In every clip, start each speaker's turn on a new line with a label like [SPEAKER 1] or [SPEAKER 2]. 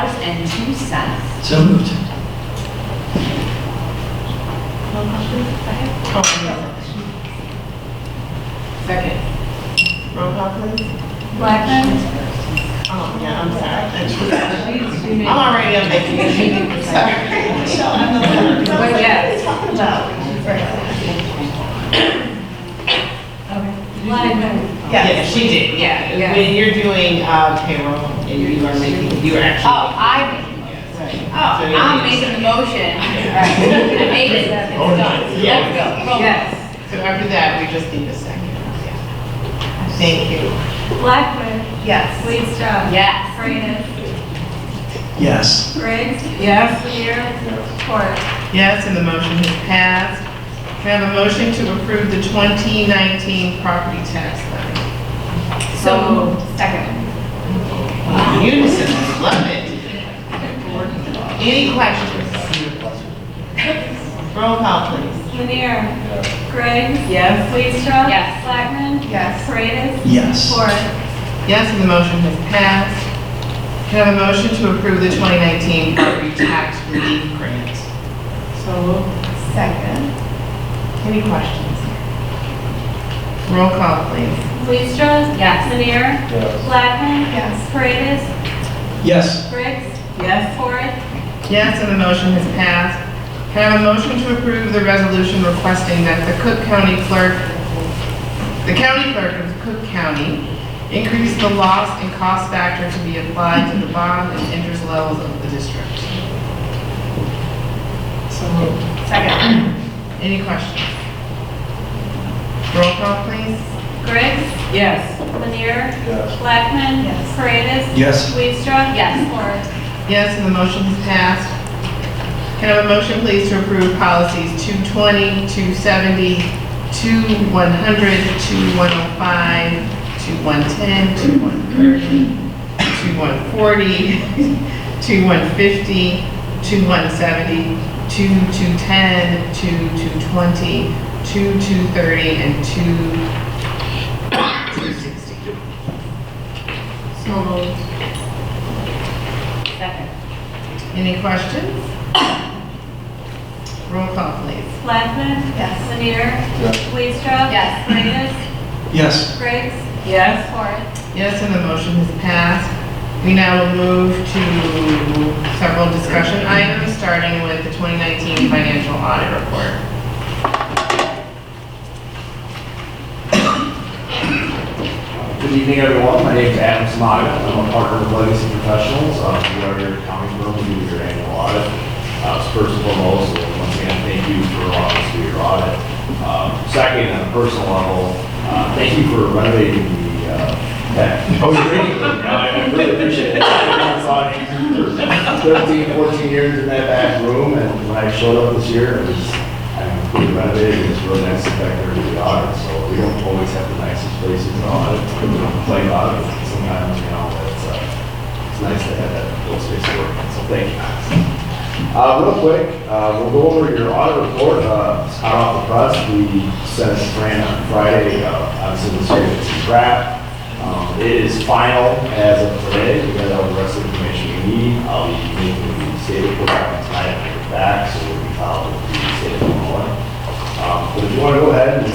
[SPEAKER 1] $28,145.02.
[SPEAKER 2] So moved.
[SPEAKER 1] Roll call, please. Go ahead.
[SPEAKER 3] Second. Roll call, please.
[SPEAKER 1] Blackman?
[SPEAKER 3] Oh, yeah, I'm sorry. I'm already on vacation. Sorry.
[SPEAKER 1] But yes. Blackman.
[SPEAKER 3] Yeah, she did,
[SPEAKER 1] Yeah.
[SPEAKER 3] yeah. When you're doing uh, payroll and you are making, you are
[SPEAKER 1] Oh,
[SPEAKER 3] actually.
[SPEAKER 1] I,
[SPEAKER 3] Right.
[SPEAKER 1] oh, I'm making the motion. I made it, it's done. Let's go. Roll call.
[SPEAKER 3] Yes. So after that, we just need a second. Thank you.
[SPEAKER 4] Blackwood,
[SPEAKER 3] Yes.
[SPEAKER 4] Leestra.
[SPEAKER 1] Yes.
[SPEAKER 4] Freitas,
[SPEAKER 2] Yes.
[SPEAKER 4] Briggs,
[SPEAKER 3] Yes.
[SPEAKER 4] Lanier, Ford.
[SPEAKER 3] Yes, and the motion has passed. Can I have a motion to approve the 2019 property tax levy?
[SPEAKER 1] So, second.
[SPEAKER 3] Unison, love it. Any questions? Roll call, please.
[SPEAKER 4] Lanier. Briggs.
[SPEAKER 3] Yes.
[SPEAKER 4] Leestra.
[SPEAKER 1] Yes.
[SPEAKER 4] Blackman.
[SPEAKER 3] Yes.
[SPEAKER 4] Freitas.
[SPEAKER 2] Yes.
[SPEAKER 4] Ford.
[SPEAKER 3] Yes, and the motion has passed. Can I have a motion to approve the 2019 property tax relief grant? So Second. Any questions? Roll call, please.
[SPEAKER 4] Leestra.
[SPEAKER 1] Yes.
[SPEAKER 4] Lanier. Blackman. Yes. Freitas,
[SPEAKER 2] Yes.
[SPEAKER 4] Briggs,
[SPEAKER 3] Yes.
[SPEAKER 4] Ford.
[SPEAKER 3] Yes, and the motion has passed. Can I have a motion to approve the resolution requesting that the Cook County Clerk, the County Clerk of Cook County, increase the loss and cost factor to be applied to the bond and interest levels of the district? So moved.
[SPEAKER 1] Second.
[SPEAKER 3] Any questions? Roll call, please.
[SPEAKER 4] Briggs,
[SPEAKER 3] Yes.
[SPEAKER 4] Lanier. Blackman. Yes. Freitas.
[SPEAKER 2] Yes.
[SPEAKER 4] Leestra.
[SPEAKER 1] Yes.
[SPEAKER 4] Ford.
[SPEAKER 3] Yes, and the motion is passed. Can I have a motion, please, to approve policies 220, 270, 2100, 2105, 2110, 2130, 2140, 2150, 2170, 2210, 2220, 2230, and 2260? So moved.
[SPEAKER 1] Second.
[SPEAKER 3] Any questions? Roll call, please.
[SPEAKER 4] Blackman. Yes. Lanier. Leestra.
[SPEAKER 1] Yes.
[SPEAKER 4] Freitas.
[SPEAKER 2] Yes.
[SPEAKER 4] Briggs.
[SPEAKER 3] Yes.
[SPEAKER 4] Ford.
[SPEAKER 3] Yes, and the motion is passed. We now will move to several discussion items, starting with the 2019 financial audit report.
[SPEAKER 5] Good evening, everyone. My name is Adam Samaga. I'm a partner with Legacy Professionals. Uh, We are your accounting firm. We do your annual audit. Uh, so First and foremost, once again, thank you for allowing us to do your audit. Um, Second, on a personal level, uh, thank you for renovating the, uh, that. Oh, you're I really appreciate it. I saw it 13, 14 years in that back room, and when I showed up this year, it was, I mean, we renovated, it was really nice back there to the audit, so we don't always have the nicest places in audit, we don't play audit sometimes, you know, but it's, uh, it's nice to have that little space to work in, so thank you. Uh, real quick, uh, we'll go over your audit report, uh, it's hot off the press, we sent it to Fran on Friday, uh, obviously this year it's a wrap. Um, it is final as of today, we got all the rest of the information we need, I'll be making the state report on tonight, and bring it back, so we'll be following the state of Illinois. Um, but if you wanna go ahead and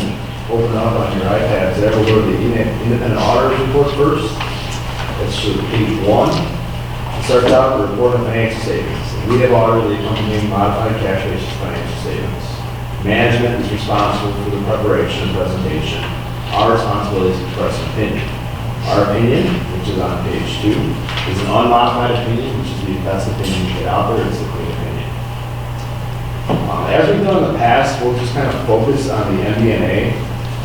[SPEAKER 5] open up on your iPads, that will go to the independent independent auditor's report first. That's should be page one. It Starts out with report on financial statements. We have audited the accompanying modified cash basis financial statements. Management is responsible for the preparation and presentation. Our responsibility is to express an opinion. Our opinion, which is on page two, is an unmodified opinion, which is the best opinion you get out there, it's a clean opinion. Um, As we've done in the past, we'll just kind of focus on the MD&A.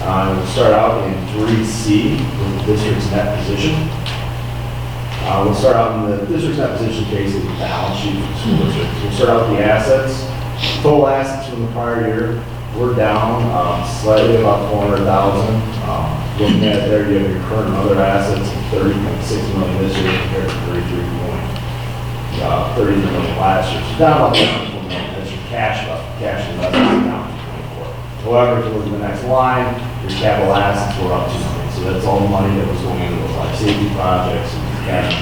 [SPEAKER 5] Uh, We'll start out in 3C, with the district's net position. Uh, We'll start out in the district's net position case, is the balance sheet for the school district. We'll start out with the assets. Total assets from the prior year, we're down um, slightly about 400,000. Um, Looking at there, you have your current other assets of 30.6 million this year compared to 33 point, uh, 30 million last year. So down about 1 million, that's your cash left, cash investments down to 24. However, if you look at the next line, your capital assets were up 2 million. So that's all the money that was going into those life safety projects and cash